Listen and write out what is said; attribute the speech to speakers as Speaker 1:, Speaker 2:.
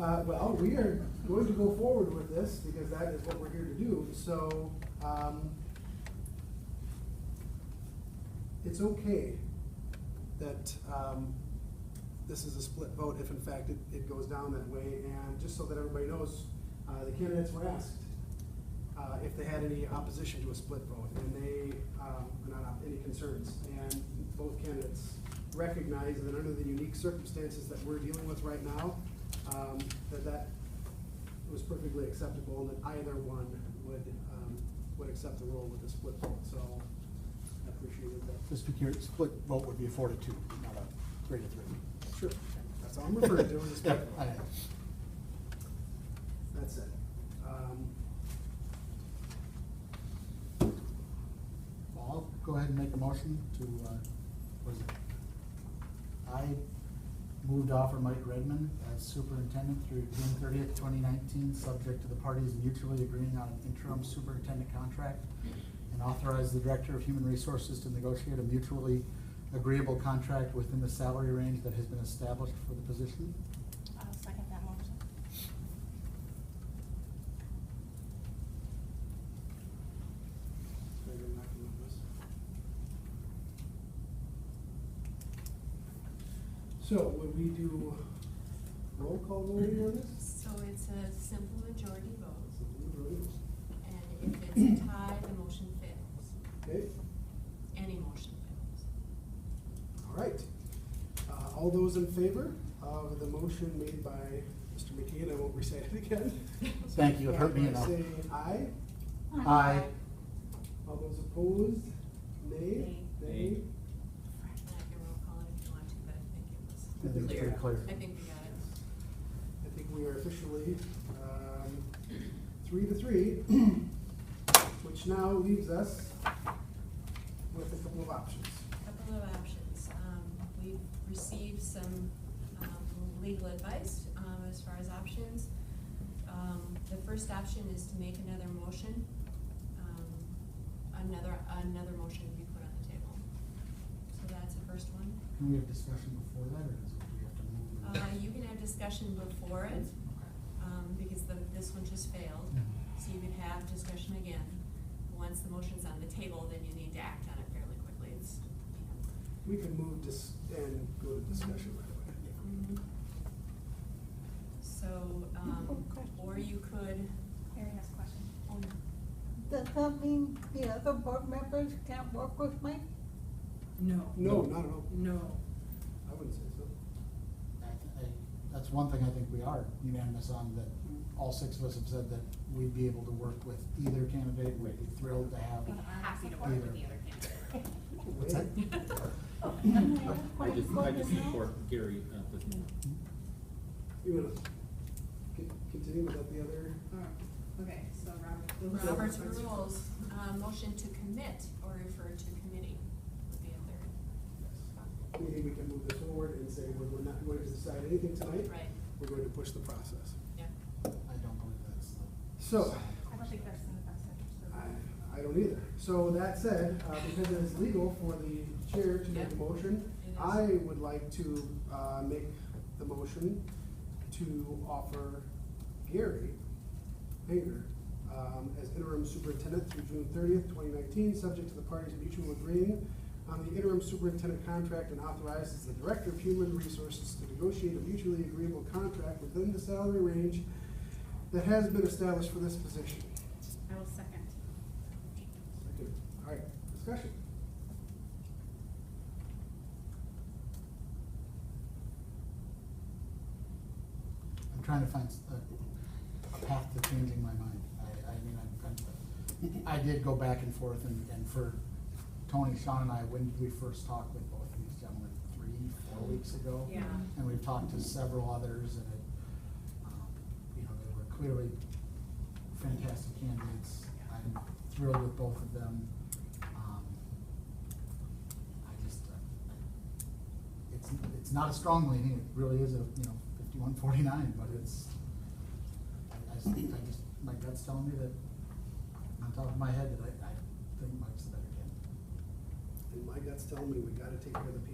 Speaker 1: Uh, well, we are going to go forward with this because that is what we're here to do, so, um, it's okay that, um, this is a split vote if in fact it, it goes down that way. And just so that everybody knows, uh, the candidates were asked, uh, if they had any opposition to a split vote, and they, um, not op- any concerns. And both candidates recognize that under the unique circumstances that we're dealing with right now, um, that that was perfectly acceptable, and that either one would, um, would accept the role with a split vote, so I appreciated that.
Speaker 2: Just to clear, split vote would be a four to two, not a three to three.
Speaker 1: Sure, that's all I'm referring to, was a split
Speaker 2: Yeah, I
Speaker 1: vote.
Speaker 2: know.
Speaker 1: That's it. Um,
Speaker 2: Well, I'll go ahead and make a motion to, uh, what is it? I moved off offer Mike Redmond as superintendent through June thirtieth, twenty nineteen, subject to the parties mutually agreeing on an interim superintendent contract and authorize the director of human resources to negotiate a mutually agreeable contract within the salary range that has been established for the position.
Speaker 3: I'll second that motion.
Speaker 1: maybe I'm not gonna move this. So would we do roll call voting on this?
Speaker 4: So it's a simple majority vote,
Speaker 1: Okay,
Speaker 4: and if it's a tie, the motion fails. Any motion fails.
Speaker 1: all right. Uh, all those in favor of the motion made by Mr. McKeon, I won't recite it again.
Speaker 2: Thank you, it hurt me
Speaker 1: Uh,
Speaker 2: enough.
Speaker 1: Say aye.
Speaker 2: Aye.
Speaker 1: All those opposed, nay?
Speaker 3: Nay.
Speaker 4: And I can roll call it if you want to, but I think it was
Speaker 2: I think it's pretty clear.
Speaker 4: I think we got it.
Speaker 1: I think we are officially um, three to three, which now leaves us with a couple of options.
Speaker 4: Couple of options. Um, we've received some, um, legal advice, um, as far as options. Um, the first option is to make another motion, um, another, another motion to be put on the table. So that's the first one.
Speaker 2: Can we have discussion before that, or is it, we have to move?
Speaker 4: Uh, you can have discussion before it, um, because the, this one just failed. So you could have discussion again. Once the motion's on the table, then you need to act on it fairly quickly. It's, you know,
Speaker 1: We can move this and go to discussion right
Speaker 4: So, um,
Speaker 3: Question.
Speaker 4: or you could,
Speaker 3: Harry has a question.
Speaker 4: oh,
Speaker 5: Does that mean the other board members can't work with Mike?
Speaker 6: No.
Speaker 1: away. No, not at all.
Speaker 6: No.
Speaker 1: I wouldn't say so.
Speaker 2: I th- I- That's one thing I think we are unanimous on, that all six of us have said that we'd be able to work with either candidate, we'd be thrilled to have.
Speaker 3: Happy to
Speaker 2: work with the
Speaker 3: other candidate.
Speaker 2: What's that?
Speaker 7: I just, I just support Gary at this moment.
Speaker 1: You want to continue without the other?
Speaker 8: Okay, so Robert.
Speaker 4: Robert's rules, uh, motion to commit or refer to committee would be a
Speaker 1: We think we can move this forward and say we're we're not going to decide anything tonight.
Speaker 4: third. Right,
Speaker 1: We're going to push the process.
Speaker 4: yeah.
Speaker 2: I don't believe that's the.
Speaker 1: So,
Speaker 3: I don't think that's in the best interest of.
Speaker 1: I, I don't either. So that said, uh, because it is legal for the chair to make a
Speaker 4: Yeah.
Speaker 1: motion,
Speaker 4: It is.
Speaker 1: I would like to, uh, make the motion to offer Gary Hager, um, as interim superintendent through June thirtieth, twenty nineteen, subject to the parties mutual agreeing on the interim superintendent contract and authorizes the director of human resources to negotiate a mutually agreeable contract within the salary range that has been established for this position.
Speaker 3: I will second.
Speaker 1: Second. All right, discussion.
Speaker 2: I'm trying to find s- a, a path to changing my mind. I, I mean, I'm, I'm, I did go back and forth and, and for Tony, Sean and I, when did we first talk with both of these gentlemen? Three, four weeks ago?
Speaker 3: Yeah.
Speaker 2: And we've talked to several others and it, um, you know, they were clearly fantastic candidates. I'm thrilled with both of them. Um, I just, uh, it's, it's not a strong leaning, it really is a, you know, fifty-one forty-nine, but it's, I, I just, I just, my gut's telling me that, on top of my head, that I, I think Mike's the better candidate.
Speaker 1: And my gut's telling me we gotta take care of the